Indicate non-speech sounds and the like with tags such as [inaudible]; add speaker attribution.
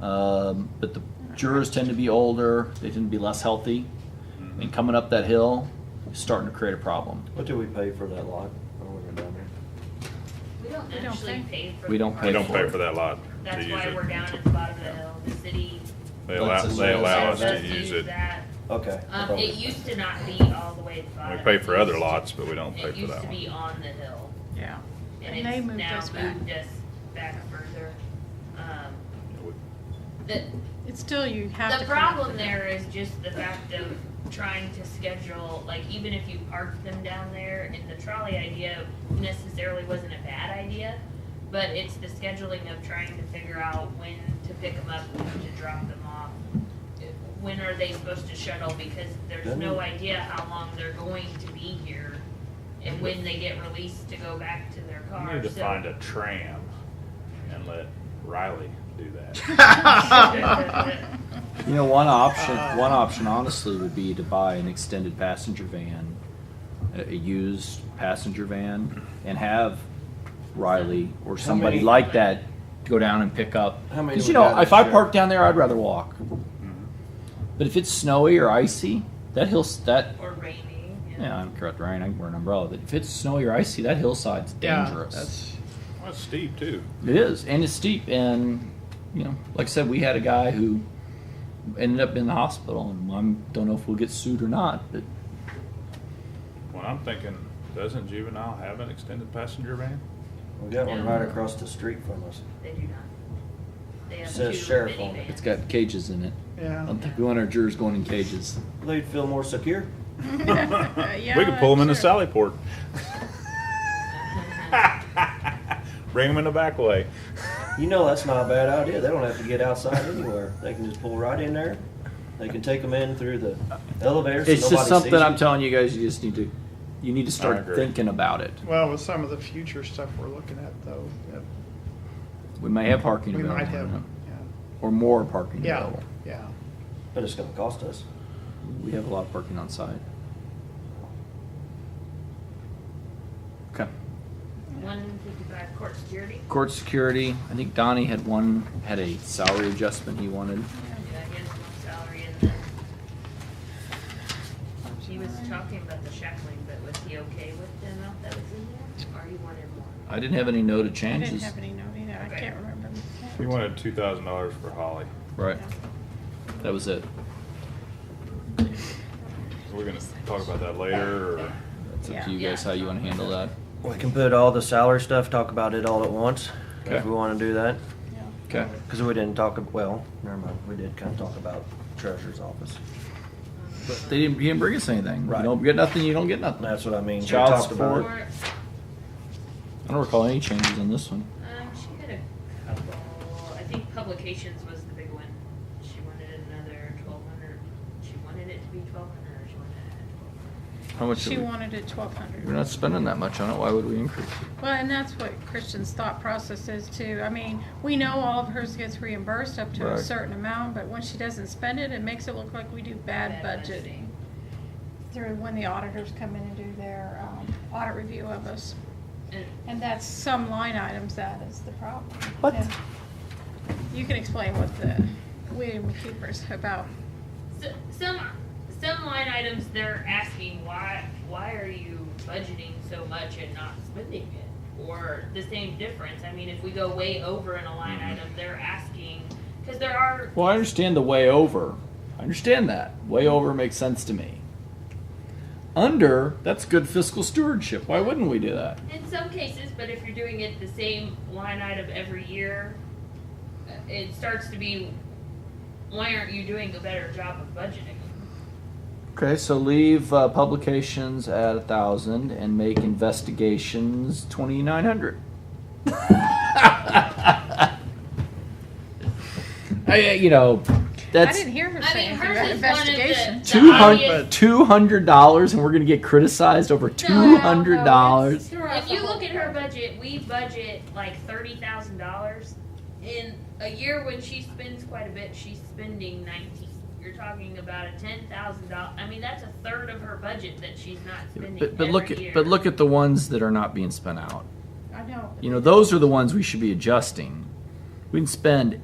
Speaker 1: Um, but the jurors tend to be older, they tend to be less healthy.
Speaker 2: Mm-hmm.
Speaker 1: And coming up that hill is starting to create a problem.
Speaker 2: What do we pay for that lot when we were down there?
Speaker 3: We don't
Speaker 4: We don't
Speaker 3: actually pay for.
Speaker 1: We
Speaker 3: the
Speaker 1: don't
Speaker 3: park.
Speaker 1: pay
Speaker 5: We don't
Speaker 1: for
Speaker 5: pay
Speaker 1: it.
Speaker 5: for that lot. to
Speaker 3: That's
Speaker 5: use
Speaker 3: why
Speaker 5: it.
Speaker 3: we're down at the bottom of the hill, the city.
Speaker 5: They allow,
Speaker 1: That's
Speaker 5: they allow us to
Speaker 3: lets
Speaker 5: use it.
Speaker 3: that.
Speaker 2: Okay. I
Speaker 3: Um,
Speaker 2: thought
Speaker 3: it
Speaker 2: we-
Speaker 3: used to not be all the way at the
Speaker 5: We
Speaker 3: bottom.
Speaker 5: pay for other
Speaker 3: It
Speaker 5: lots, but we don't
Speaker 3: used-
Speaker 5: pay for that
Speaker 3: It used to be
Speaker 5: one.
Speaker 3: on the hill,
Speaker 4: Yeah.
Speaker 3: and
Speaker 4: And they
Speaker 3: it's
Speaker 4: moved
Speaker 3: now
Speaker 4: us back.
Speaker 3: moved us back further. Um, The,
Speaker 4: It's still, you have to.
Speaker 3: the
Speaker 4: come up
Speaker 3: problem
Speaker 4: with it.
Speaker 3: there is just the fact of trying to schedule, like even if you parked them down there and the trolley idea necessarily wasn't a bad idea, but it's the scheduling of trying to figure out when to pick them up, when to drop them off. When are they supposed to shuttle, because there's no idea how long they're going to be here and when they get released to go back to their
Speaker 6: You
Speaker 3: car,
Speaker 6: need to
Speaker 3: so- [laughs]
Speaker 6: find a tram and let Riley do that. [laughs]
Speaker 3: [laughs]
Speaker 1: You know, one option, one option honestly would be to buy an extended passenger van, a, a used passenger van, and have Riley or somebody
Speaker 2: many-
Speaker 1: like that go down and pick up.
Speaker 2: How many
Speaker 1: 'Cause,
Speaker 2: we
Speaker 1: you know,
Speaker 2: got
Speaker 1: if I
Speaker 2: this year?
Speaker 1: park down there, I'd rather walk.
Speaker 2: Mm-hmm.
Speaker 1: But if it's snowy or icy, that hill that
Speaker 3: Or raining,
Speaker 1: yeah, I'm correct, Ryan. I can wear an umbrella. But if it's snowy or icy, that hillside's
Speaker 7: Yeah,
Speaker 1: dangerous.
Speaker 4: [laughs]
Speaker 7: that's-
Speaker 5: Well, it's steep too.
Speaker 1: It is, and it's steep, and you know, like I said, we had a guy who ended up in the hospital, and I don't know if we'll get sued or not, but
Speaker 5: Well, I'm thinking, doesn't juvenile have an extended passenger van?
Speaker 2: We got one right across the street from us.
Speaker 3: They do not. They have
Speaker 2: Says
Speaker 3: two
Speaker 2: sheriff on it.
Speaker 3: minivans.
Speaker 1: it's got cages in it. I
Speaker 7: Yeah.
Speaker 1: don't think we want our jurors going in cages.
Speaker 2: They'd feel more secure.
Speaker 5: [laughs] We
Speaker 4: Uh, Yeah,
Speaker 5: could pull them into
Speaker 4: sure.
Speaker 5: Sallyport. Bring them in the back way.
Speaker 2: You know that's not a bad idea. They don't have to get outside anywhere. They can just pull right in there. They can take them in through the elevator. so
Speaker 1: It's just
Speaker 2: nobody
Speaker 1: something
Speaker 2: sees
Speaker 1: I'm
Speaker 2: you.
Speaker 1: telling you guys. You just need to, you need to
Speaker 5: I
Speaker 1: start
Speaker 5: agree.
Speaker 1: thinking about it.
Speaker 7: Well, with some of the future stuff we're looking at though, that
Speaker 1: We may have parking
Speaker 7: we might
Speaker 1: available,
Speaker 7: have,
Speaker 1: or more parking
Speaker 7: yeah,
Speaker 1: available.
Speaker 7: yeah,
Speaker 2: But it's gonna cost us.
Speaker 1: We have a lot of parking on site. Okay.
Speaker 3: [laughs] One fifty-five court security.
Speaker 1: Court security. I think Donnie had one had a salary adjustment he wanted.
Speaker 3: Yeah, he has one salary and then he was talking about the shackling, but was he okay with the amount that was in there? Or he wanted more?
Speaker 1: I didn't have any noted
Speaker 4: I didn't
Speaker 1: changes.
Speaker 4: have any note either. I can't remember.
Speaker 5: We wanted two thousand dollars for Holly.
Speaker 1: Right. That was it.
Speaker 5: We're gonna talk about that later, or?
Speaker 1: That's up
Speaker 4: Yeah.
Speaker 1: to you guys how you want to handle that.
Speaker 2: We can put all the salary stuff, talk about it all at once,
Speaker 1: Okay.
Speaker 2: if we wanna do that.
Speaker 4: Yeah.
Speaker 1: Okay.
Speaker 2: Cause we didn't talk, ab- well, never mind, we did kinda talk about treasurer's office.
Speaker 1: But they didn't, you didn't bring us anything. You
Speaker 2: Right.
Speaker 1: don't get nothing, you don't get nothing. I
Speaker 2: That's what I mean. We
Speaker 1: Child
Speaker 2: talked about it.
Speaker 1: support. don't recall any changes on this one.
Speaker 3: Um, she had a couple, I think publications was the big one. She wanted another twelve hundred, she wanted it to be twelve hundred or she wanted it at twelve hundred.
Speaker 1: How much?
Speaker 4: She
Speaker 1: did we-
Speaker 4: wanted it twelve hundred.
Speaker 1: We're not spending that much on it. Why would we increase it?
Speaker 4: Well, and that's what Christian's thought process is too. I mean, we know all of hers gets reimbursed up to a
Speaker 1: Right.
Speaker 4: certain amount, but when she doesn't spend it, it makes it look like we do bad budgeting. Through when the auditors come in and do their, um, audit review of us.
Speaker 3: And
Speaker 4: And that's some line items that is the problem.
Speaker 1: What?
Speaker 4: And You can explain what the William McKeeper's about.
Speaker 3: So- some some line items they're asking why why are you budgeting so much and not spending it or the same difference i mean if we go way over in a line item they're asking because there are
Speaker 1: Well, I understand the way over. I understand that. Way over makes sense to me. Under, that's good fiscal stewardship. Why wouldn't we do that?
Speaker 3: in some cases but if you're doing it the same line item every year uh, it starts to be why aren't you doing a better job of budgeting
Speaker 1: Okay, so leave uh, publications at a thousand and make investigations twenty nine hundred. [laughs] I, uh, you know,
Speaker 4: I
Speaker 1: that's
Speaker 4: didn't hear her
Speaker 3: I
Speaker 4: say
Speaker 3: mean,
Speaker 4: anything
Speaker 3: hers
Speaker 4: about
Speaker 3: is one of the-
Speaker 4: investigation.
Speaker 1: two
Speaker 3: obvious-
Speaker 1: hundred two hundred dollars, and we're gonna get criticized over two hundred dollars.
Speaker 3: If you look at her budget, we budget like thirty thousand dollars. In a year when she spends quite a bit, she's spending nineteen. You're talking about a ten thousand dollar. I mean, that's a third of her budget that she's not spending.
Speaker 1: But, but look
Speaker 3: every year.
Speaker 1: at but look at the ones that are not being spent out.
Speaker 4: I know.
Speaker 1: You know, those are the ones we should be adjusting. We can spend